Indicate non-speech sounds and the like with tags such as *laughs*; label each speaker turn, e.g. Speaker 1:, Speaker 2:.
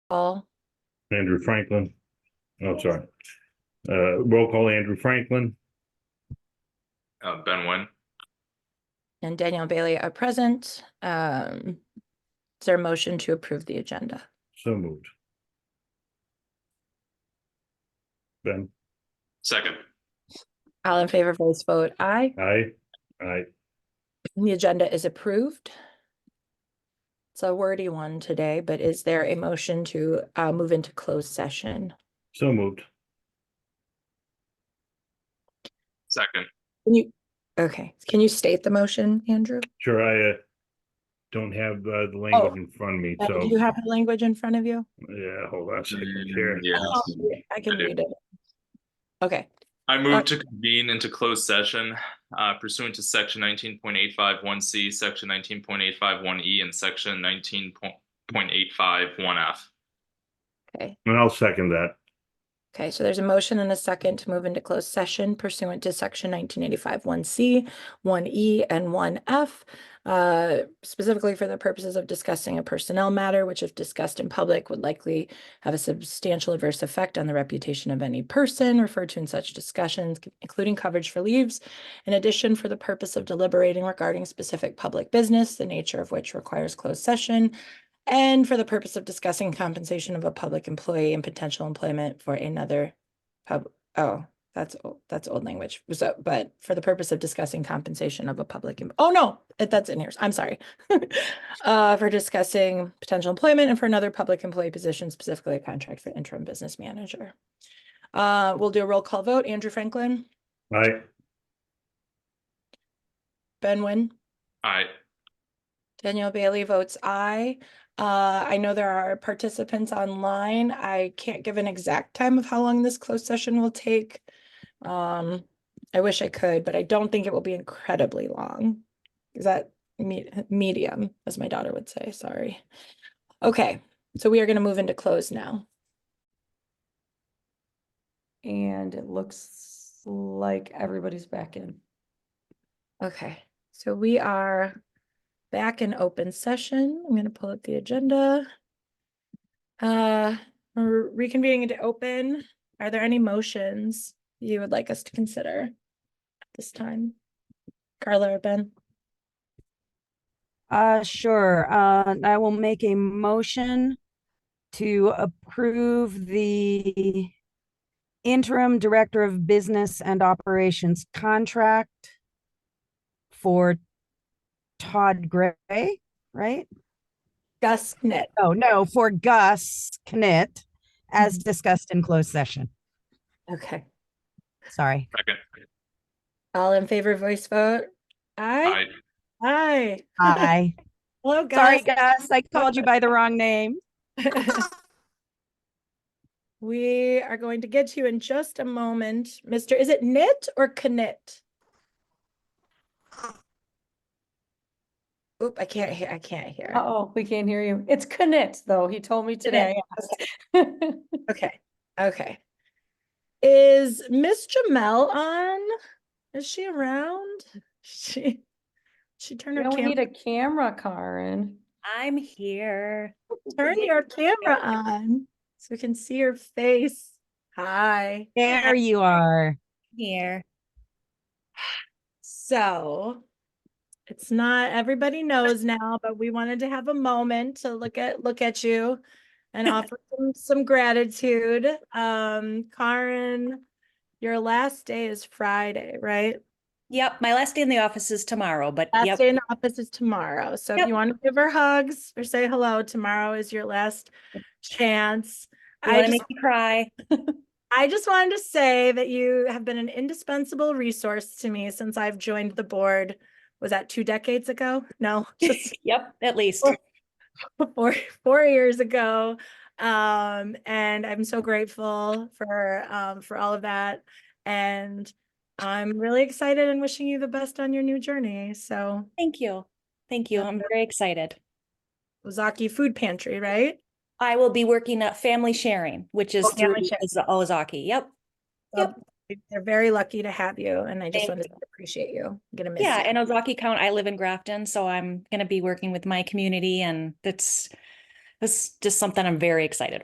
Speaker 1: Paul,
Speaker 2: Andrew Franklin. Oh, sorry. Uh, roll call Andrew Franklin,
Speaker 3: Uh, Ben Wen,
Speaker 1: and Danielle Bailey are present. Um, is there a motion to approve the agenda?
Speaker 2: so moved. Ben,
Speaker 3: second.
Speaker 1: All in favor, voice vote aye.
Speaker 2: aye, aye,
Speaker 1: The agenda is approved. It's a wordy one today, but is there a motion to uh move into closed session?
Speaker 2: so moved.
Speaker 3: Second.
Speaker 1: Can you, okay, can you state the motion, Andrew?
Speaker 2: Sure, I uh, don't have uh, the language in front of me,
Speaker 1: Uh, Do
Speaker 2: so,
Speaker 1: you have the language in front of you?
Speaker 2: yeah, hold on a second here.
Speaker 3: Mm, Yeah.
Speaker 1: Oh, I can
Speaker 3: I do.
Speaker 1: read it. Okay,
Speaker 3: I move to convene into closed session uh, pursuant to section nineteen point eight five one C, section nineteen point eight five one E, and section nineteen point eight five one F.
Speaker 1: okay.
Speaker 2: And I'll second that.
Speaker 1: Okay, so there's a motion and a second to move into closed session pursuant to section nineteen eighty-five, one C, one E, and one F. Uh, specifically for the purposes of discussing a personnel matter, which if discussed in public would likely have a substantial adverse effect on the reputation of any person referred to in such discussions, c- including coverage for leaves. In addition, for the purpose of deliberating regarding specific public business, the nature of which requires closed session, and for the purpose of discussing compensation of a public employee and potential employment for another pub, oh, that's, o- that's old language. So, but for the purpose of discussing compensation of a public, em- oh, no, eh, that's in here. I'm sorry. *laughs* Uh, for discussing potential employment and for another public employee position, specifically a contract for interim business manager. Uh, we'll do a roll call vote. Andrew Franklin,
Speaker 2: Aye,
Speaker 1: Ben Wynn.
Speaker 3: Aye.
Speaker 1: Danielle Bailey votes aye. Uh, I know there are participants online. I can't give an exact time of how long this closed session will take. Um, I wish I could, but I don't think it will be incredibly long. Is that me- medium, as my daughter would say, sorry. Okay, so we are gonna move into close now.
Speaker 4: And it looks like everybody's back in.
Speaker 1: Okay, so we are back in open session. I'm gonna pull up the agenda. Uh, we're reconvening into open. Are there any motions you would like us to consider at this time? Carla or Ben?
Speaker 5: Uh, sure. Uh, I will make a motion to approve the interim director of business and operations contract for Todd Gray, right?
Speaker 1: Gus Knit.
Speaker 5: Oh, no, for Gus Knit, as discussed in closed session.
Speaker 1: Okay,
Speaker 5: Sorry.
Speaker 3: Second.
Speaker 1: all in favor, voice vote? Aye.
Speaker 3: Aye.
Speaker 1: Aye.
Speaker 5: Hi.
Speaker 1: Hello,
Speaker 5: Sorry,
Speaker 1: Gus.
Speaker 5: Gus. I called you by the wrong name.
Speaker 1: *laughs* We are going to get to you in just a moment. Mr. Is it knit or knit? Oop, I can't hear, I can't hear.
Speaker 4: Uh-oh, we can't hear you. It's Knit, though. He told me today. I *laughs* asked.
Speaker 1: Okay, okay. Is Miss Jamel on? Is she around? She, she turned
Speaker 4: We
Speaker 1: her
Speaker 4: don't need
Speaker 1: camera,
Speaker 4: a camera, Karen.
Speaker 6: I'm here.
Speaker 1: turn your camera on so we can see your face. Hi.
Speaker 5: There you are.
Speaker 6: Here.
Speaker 1: So it's not, everybody knows now, but we wanted to have a moment to look at, look at you
Speaker 6: *laughs*
Speaker 1: and offer some, some gratitude. Um, Karen, your last day is Friday, right?
Speaker 6: Yep, my last day in the office is tomorrow, but
Speaker 1: Last
Speaker 6: yep,
Speaker 1: day in the office is tomorrow. So if
Speaker 6: Yep.
Speaker 1: you want to give her hugs or say hello, tomorrow is your last chance.
Speaker 6: you
Speaker 1: I
Speaker 6: want
Speaker 1: just
Speaker 6: to make me cry?
Speaker 1: I just wanted to say that you have been an indispensable resource to me since I've joined the board. Was that two decades ago? No, *laughs* just
Speaker 6: *laughs* Yep, at least.
Speaker 1: Well, *laughs* four four years ago. Um, and I'm so grateful for um for all of that. And I'm really excited and wishing you the best on your new journey. So
Speaker 6: Thank you. Thank you. I'm very excited.
Speaker 1: Ozaki Food Pantry, right?
Speaker 6: I will be working at family sharing, which is
Speaker 1: Oh,
Speaker 6: through
Speaker 1: family sharing.
Speaker 6: Oza- Ozaki. Yep.
Speaker 1: So They're very lucky to have you, and I just
Speaker 6: Thank
Speaker 1: wanted to appreciate you. I'm gonna miss
Speaker 6: Yeah,
Speaker 1: you.
Speaker 6: and Ozaki Count, I live in Grafton, so I'm going to be working with my community and that's that's just something I'm very excited